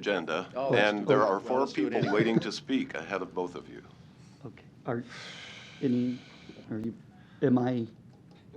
agenda, Oh, let's and do there it. are Well, four let's do it people anyway. waiting to speak ahead of both of you. Okay, are, in, are you, am I,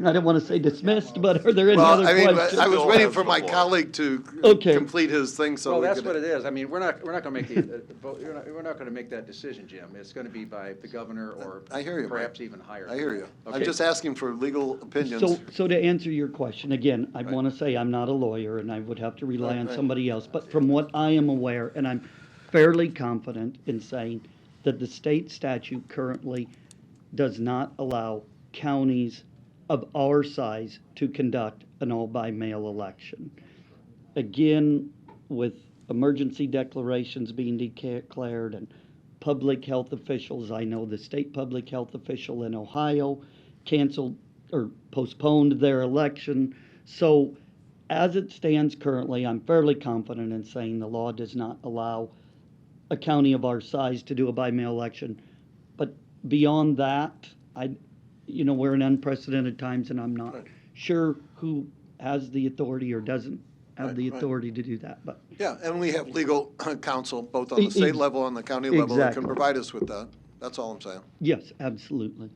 I don't want to say dismissed, but are there any Well, other I mean, questions? I was Still waiting has for the my floor. colleague to Okay. complete his thing so Well, we that's what it could. is. I mean, we're not, we're not going to make the, uh, vote- you're not- we're not going to make that decision, Jim. It's going to be by the governor or I hear you, Mike. perhaps even higher. I hear you. I'm Okay. just asking for legal So, opinions. so to answer your question, again, I want to say I'm not a lawyer and I would have to rely on somebody else. But from what I am aware, and I'm fairly confident in saying that the state statute currently does not allow counties of our size to conduct an all-by-mail election. Again, with emergency declarations being declared and public health officials, I know the state public health official in Ohio canceled or postponed their election. So as it stands currently, I'm fairly confident in saying the law does not allow a county of our size to do a by-mail election. But beyond that, I, you know, we're in unprecedented times and I'm not sure who has the authority or doesn't have Right, the right. authority to do that, but. Yeah, and we have legal counsel, both on E- the state ex- level and the county level, that can exactly. provide us with that. That's all I'm saying. Yes, absolutely.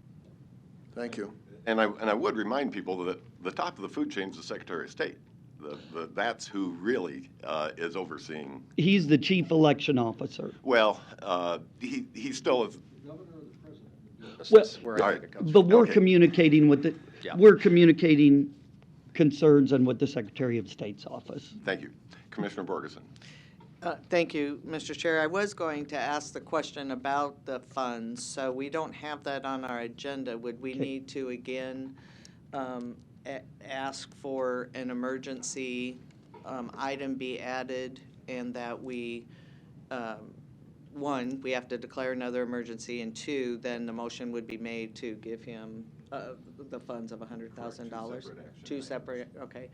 Thank you. And I, and I would remind people that the top of the food chain is the Secretary of State. The- the- That's who really uh, is overseeing, He's the chief election officer. well, uh, he, he still is, That's- Well- that's where I think it comes But from. we're Okay. communicating with the, Yeah. we're communicating concerns and with the Secretary of State's office. thank you. Commissioner Borgeson. Uh, Thank you, Mr. Chair. I was going to ask the question about the funds, so we don't have that on our agenda. Would we Okay. need to again um, a- ask for an emergency um, item be added and that we, um, one, we have to declare another emergency, and two, then the motion would be made to give him uh, the funds of $100,000? Two separate, okay.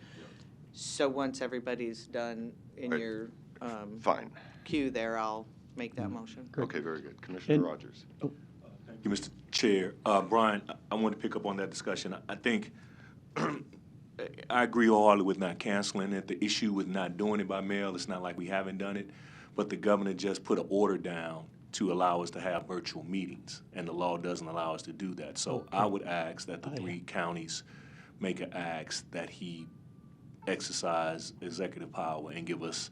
So once everybody's done in Right. your um, Fine. queue there, I'll make that motion. Okay, very good. Commissioner And- Rogers. Thank you, Mr. Chair. Uh, Brian, I- I want to pick up on that discussion. I- I think, I agree wholeheartedly with not canceling it. The issue with not doing it by mail, it's not like we haven't done it, but the governor just put an order down to allow us to have virtual meetings, and the law doesn't allow us to do that. So I would ask that the three counties make an ask that he exercise executive power and give us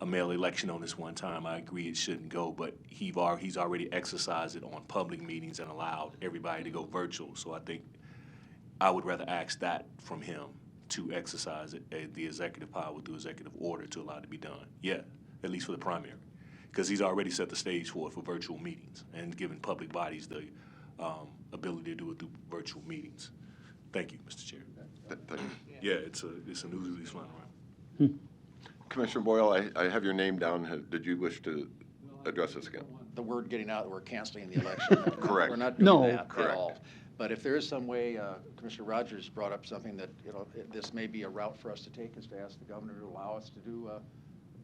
a mail election on this one time. I agree it shouldn't go, but he've al- he's already exercised it on public meetings and allowed everybody to go virtual. So I think I would rather ask that from him to exercise it, uh, the executive power through executive order to allow it to be done. Yeah, at least for the primary, because he's already set the stage for it for virtual meetings and giving public bodies the um, ability to do it through virtual meetings. Thank you, Mr. Chair. Th- thank you. Yeah, it's a it's a news release running around. Hmm. Commissioner Boyle, I, I have your name down. Ha- Did you wish to address this again? The word getting out that we're canceling the election. Correct. We're not No. doing that at Correct. all. But if there is some way, uh, Commissioner Rogers brought up something that, you know, it- this may be a route for us to take is to ask the governor to allow us to do uh,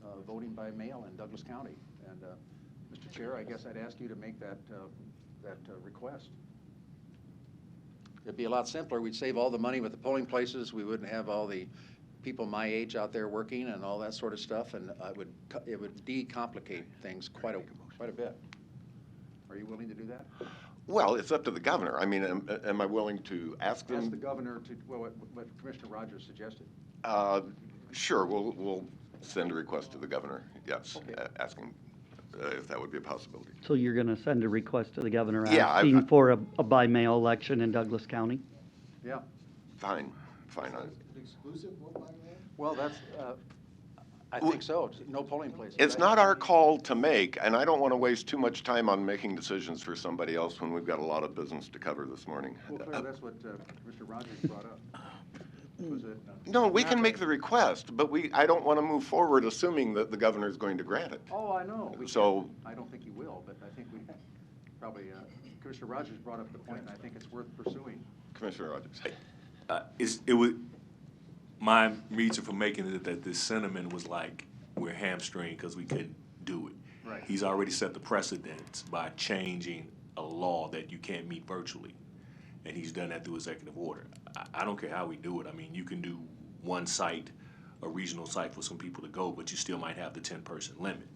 uh, voting by mail in Douglas County. And, uh, Mr. Chair, I guess I'd ask you to make that, uh, that uh, request. It'd be a lot simpler. We'd save all the money with the polling places. We wouldn't have all the people my age out there working and all that sort of stuff. And I would, co- it would de-complicate things quite a, quite a bit. Are you willing to do that? Well, it's up to the governor. I mean, am, am I willing to ask Ask the them? governor to, well, what- what Commissioner Rogers suggested. Uh, Sure, we'll, we'll send a request to the governor, yes, a- asking uh, if that would be a possibility. So you're going to send a request to the governor Yeah, I- asking for a, a by-mail election in Douglas County? Yeah. Fine, fine. I- Well, that's, uh, I think so. No polling places. It's right? not our call to make, and I don't want to waste too much time on making decisions for somebody else when we've got a lot of business to cover this morning. Well, Claire, that's what uh, Mr. Rogers brought up. Was it? uh, No, we can make the request, but we, I don't want to move forward assuming that the governor is going to grant it. Oh, I know. We So- can't- I don't think he will, but I think we probably, uh, Commissioner Rogers brought up the point, and I think it's worth pursuing. Commissioner Rogers. uh, is it would my reason for making it that this sentiment was like we're hamstringed because we couldn't do it. Right. He's already set the precedence by changing a law that you can't meet virtually, and he's done that through executive order. I, I don't care how we do it. I mean, you can do one site a regional site for some people to go, but you still might have the ten-person limit.